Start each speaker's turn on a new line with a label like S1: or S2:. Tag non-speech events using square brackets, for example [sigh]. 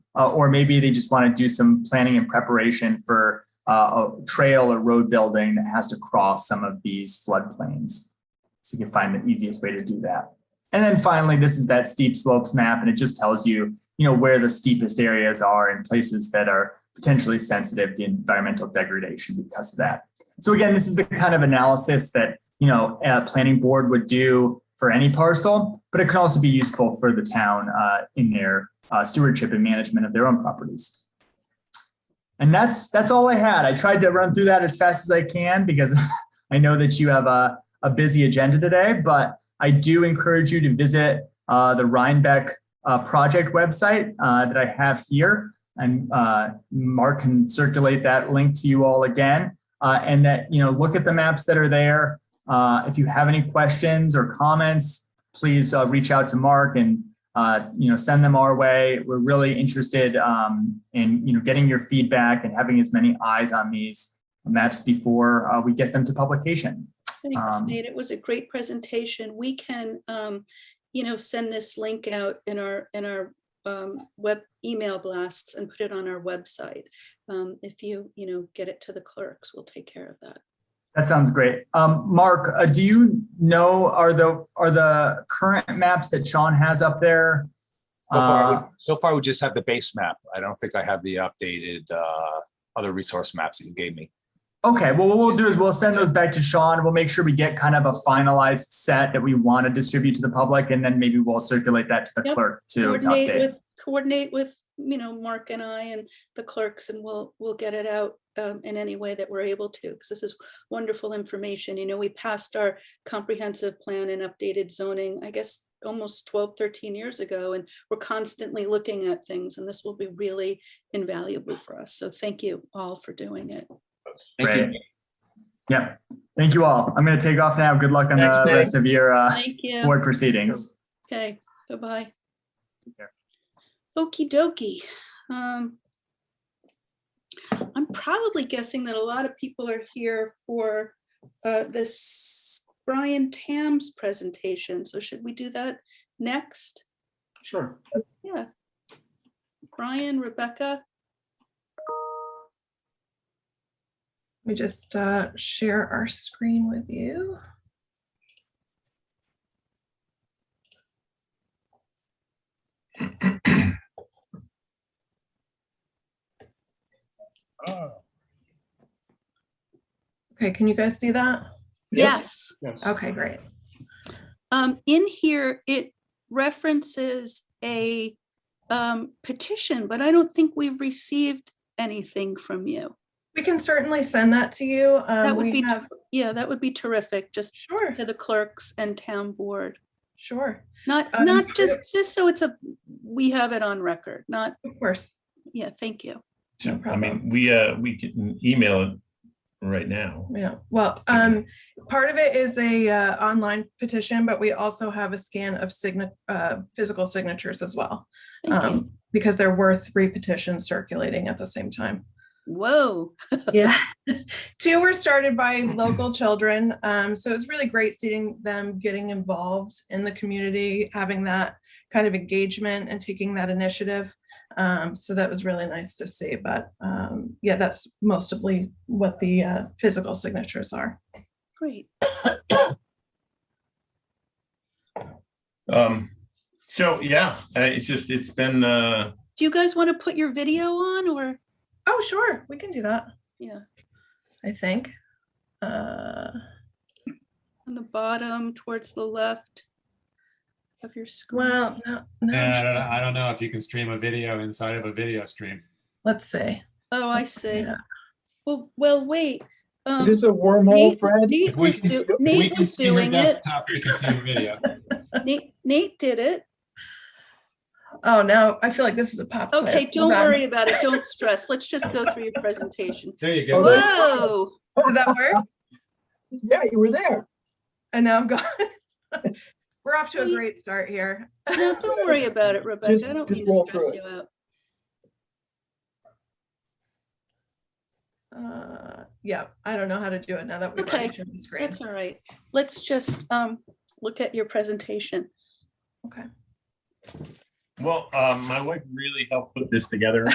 S1: uh, or maybe they just want to do some planning and preparation for uh, a trail or road building that has to cross some of these floodplains. So you can find the easiest way to do that. And then finally, this is that steep slopes map, and it just tells you, you know, where the steepest areas are and places that are potentially sensitive to environmental degradation because of that. So again, this is the kind of analysis that you know a planning board would do for any parcel, but it can also be useful for the town uh, in their uh, stewardship and management of their own properties. And that's that's all I had. I tried to run through that as fast as I can because [laughs] I know that you have a, a busy agenda today, but I do encourage you to visit uh, the Rhinebeck uh, project website uh, that I have here. And uh, Mark can circulate that link to you all again. Uh, and that, you know, look at the maps that are there. Uh, if you have any questions or comments, please uh, reach out to Mark and uh, you know, send them our way. We're really interested um, in you know getting your feedback and having as many eyes on these maps before uh, we get them to publication.
S2: Thanks,
S1: Um,
S2: Nate. It was a great presentation. We can, um, you know, send this link out in our, in our um, web email blasts and put it on our website. Um, If you, you know, get it to the clerks, we'll take care of that.
S1: That sounds great. Um, Mark, uh, do you know are the are the current maps that Sean has up there?
S3: So far, I
S1: Uh,
S3: would- so far, we just have the base map. I don't think I have the updated uh, other resource maps that you gave me.
S1: Okay, well, what we'll do is we'll send those back to Sean. We'll make sure we get kind of a finalized set that we want to distribute to the public, and then maybe we'll circulate that to the
S2: Yep.
S1: clerk to, to
S2: Coordinate
S1: update.
S2: with, coordinate with, you know, Mark and I and the clerks and we'll, we'll get it out um, in any way that we're able to, because this is wonderful information. You know, we passed our comprehensive plan and updated zoning, I guess, almost 12, 13 years ago, and we're constantly looking at things and this will be really invaluable for us. So thank you all for doing it.
S3: Thank you.
S1: Right. Yep. Thank you all. I'm going to take off now. Good luck on
S4: Thanks,
S1: the
S4: Nick.
S1: rest of your uh,
S2: Thank you.
S1: board proceedings.
S2: Okay, bye-bye.
S1: care.
S2: Okey dokey. Um, I'm probably guessing that a lot of people are here for uh, this Brian Tam's presentation, so should we do that next?
S4: Sure.
S2: Yeah. Brian, Rebecca,
S5: Let me just uh, share our screen with you. Okay, can you guys see that?
S2: yes.
S5: Okay, great.
S2: Um, in here, it references a um, petition, but I don't think we've received anything from you.
S5: We can certainly send that to you. Um,
S2: That would
S5: we
S2: be-
S5: have-
S2: Yeah, that would be terrific, just
S5: Sure,
S2: to the clerks and town board.
S5: sure,
S2: Not,
S5: Um,
S2: not just, just so it's a, we have it on record, not,
S5: of course.
S2: yeah, thank you.
S5: No
S6: I
S5: problem.
S6: mean, we, uh, we can email it right now.
S5: Yeah, well, um, part of it is a uh, online petition, but we also have a scan of signa- uh, physical signatures as well.
S2: Thank you.
S5: Um, because there were three petitions circulating at the same
S2: [laughs]
S5: time.
S2: Whoa,
S5: Yeah. [laughs] Two were started by local children. Um, so it's really great seeing them getting involved in the community, having that kind of engagement and taking that initiative. Um, so that was really nice to see. But um, yeah, that's mostly what the uh, physical signatures are.
S2: great.
S6: Um, so, yeah, uh, it's just, it's been, uh,
S2: Do you guys want to put your video on or,
S5: Oh, sure, we can do that,
S2: yeah,
S5: I think. Uh,
S2: on the bottom towards the left of your screen?
S5: well, no, no.
S4: Yeah, I don't, know- I don't know if you can stream a video inside of a video stream.
S5: Let's see.
S2: Oh, I see.
S5: Yeah.
S2: Well, well, wait. um,
S7: Is this a
S2: Nate-
S7: wormhole, Fred?
S2: Nate
S4: If we
S2: was
S4: can,
S2: do-
S4: if we
S2: Nate
S4: can
S2: was
S4: see your
S2: doing it.
S4: desktop, we can see your video.
S2: Nate, Nate did it.
S5: Oh, now I feel like this is a pop. quiz.
S2: Okay, don't
S5: Hold on.
S2: worry about it. Don't stress. Let's just go through your
S7: [laughs]
S2: presentation.
S4: There you
S7: Okay.
S4: go.
S2: Whoa,
S5: Did that work?
S2: [laughs]
S7: Yeah, you were there.
S5: And now I'm gone. [laughs] We're off to a
S2: Sweet.
S5: great start here.
S2: no, don't worry about it, Rebecca. I don't
S7: just
S2: mean to
S7: roll
S2: stress
S7: through it.
S2: you out.
S5: Uh, yeah, I don't know how to do it now that we've
S2: Okay,
S5: already shown the screen.
S2: That's all right. Let's just um, look at your presentation.
S5: Okay.
S6: Well, um, my wife really helped put this together.